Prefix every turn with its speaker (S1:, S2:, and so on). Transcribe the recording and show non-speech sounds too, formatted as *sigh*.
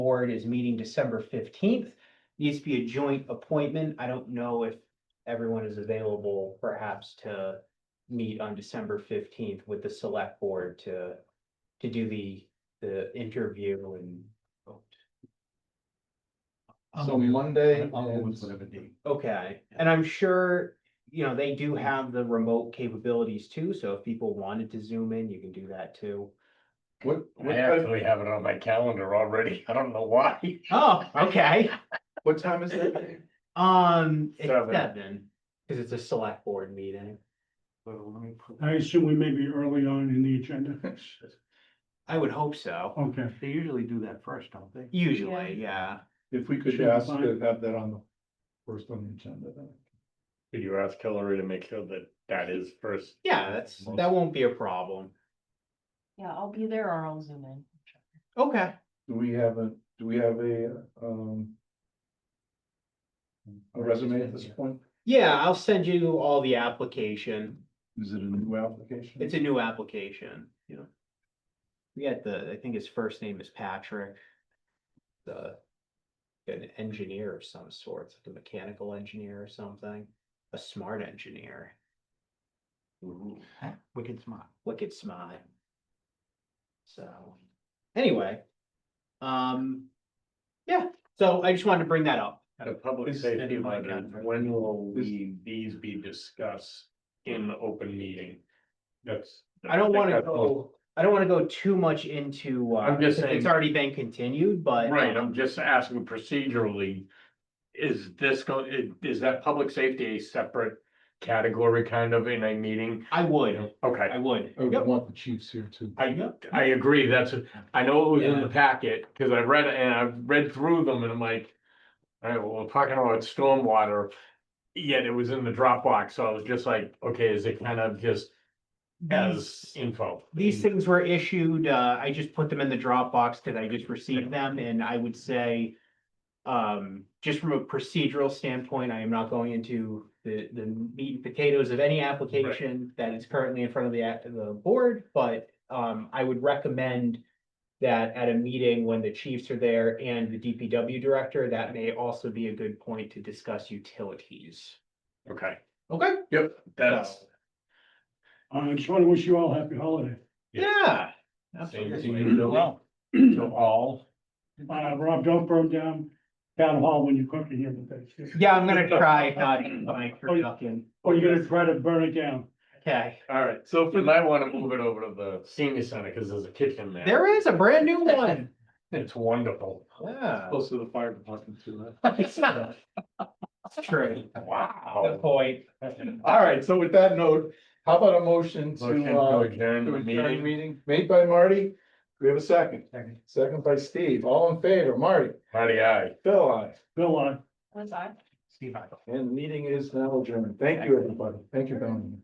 S1: board is meeting December fifteenth. Needs to be a joint appointment. I don't know if everyone is available perhaps to meet on December fifteenth with the select board to, to do the, the interview and.
S2: I'm
S3: So
S2: available.
S3: Monday
S2: I'll go Um, with
S3: is-
S2: whatever date.
S1: Okay, and I'm sure, you know, they do have the remote capabilities too, so if people wanted to zoom in, you can do that too.
S3: What, what
S4: I
S3: time,
S4: actually have it on my calendar already. *laughs* I don't know why.
S1: Oh, okay.
S3: what time is that?
S1: Um, it's
S4: Seven.
S1: seven, cause it's a select board meeting.
S3: Well, let me put-
S5: I assume we may be early on in the
S3: *laughs*
S5: agenda.
S1: I would hope so,
S5: Okay.
S2: They usually do that first, don't they?
S1: usually, yeah.
S3: If we could
S5: Should be
S3: ask
S5: fine.
S3: to have that on the first on the agenda then.
S4: Could you ask Hillary to make sure that that is first?
S1: Yeah, that's, that won't be a problem.
S6: Yeah, I'll be there or I'll zoom in.
S1: Okay.
S3: Do we have a, do we have a, um, a resume at this point?
S1: Yeah, I'll send you all the application.
S3: Is it a new application?
S1: It's a new application, you know. We got the, I think his first name is Patrick. The. An engineer of some sort, like a mechanical engineer or something, a smart engineer,
S2: Wicked smart.
S1: wicked smart. So, anyway. Um. Yeah, so I just wanted to bring that up.
S4: At a public
S3: Is-
S4: safety
S2: my
S4: one,
S2: calendar.
S4: when will
S3: Is-
S4: we, these be discussed in the open meeting? That's.
S1: I don't
S4: think
S1: wanna
S4: that's most-
S1: go, I don't wanna go too much into, uh,
S4: I'm
S1: because
S4: just
S1: it's
S4: saying-
S1: already been continued, but.
S4: Right, I'm
S1: um,
S4: just asking procedurally. Is this go, i- is that public safety a separate category kind of in a meeting?
S1: I would,
S4: Okay,
S1: I would.
S3: I would
S1: Yep.
S3: oh, want the chiefs here too.
S4: I, I agree, that's, a- I know it was in the packet, cause I read it and I've read through them and I'm like. Alright, well, we're talking about stormwater, yet it was in the Dropbox, so I was just like, okay, is it kind of just as
S1: These-
S4: info?
S1: These things were issued, uh, I just put them in the Dropbox because I just received them and I would say. Um, just from a procedural standpoint, I am not going into the, the meat and potatoes of any application that is currently in front of the, act- the board, but. Um, I would recommend that at a meeting when the chiefs are there and the DPW director, that may also be a good point to discuss utilities.
S4: Okay,
S1: Okay.
S4: yep, that's.
S5: Uh, I just want to wish you all happy holiday.
S1: Yeah.
S4: Same
S1: absolutely.
S4: to you, Billy, to all.
S5: Uh, Rob, don't burn down town hall when you cook in here today.
S3: *laughs*
S1: Yeah, I'm gonna try not to my production.
S5: Or you're gonna try to burn it down.
S1: Okay,
S4: Alright, so if you might wanna move it over to the senior center, cause there's a kitchen there.
S1: there is a brand new one.
S4: It's wonderful.
S1: Yeah. *laughs*
S3: Close to the fire department too.
S1: It's not. It's true. The
S4: Wow.
S1: point.
S3: *laughs* All right, so with that note, how about a motion
S4: Motion
S3: to,
S4: to
S3: uh,
S4: adjourn
S3: to
S4: the
S3: adjourn
S4: meeting.
S3: meeting made by Marty? Do we have a second?
S2: Second.
S3: Second by Steve. All in favor, Marty,
S4: Marty, aye.
S3: Bill, I.
S5: Bill, I.
S6: Was I?
S2: Steve, I.
S3: And the meeting is now adjourned. Thank you, everybody. Thank you, Don.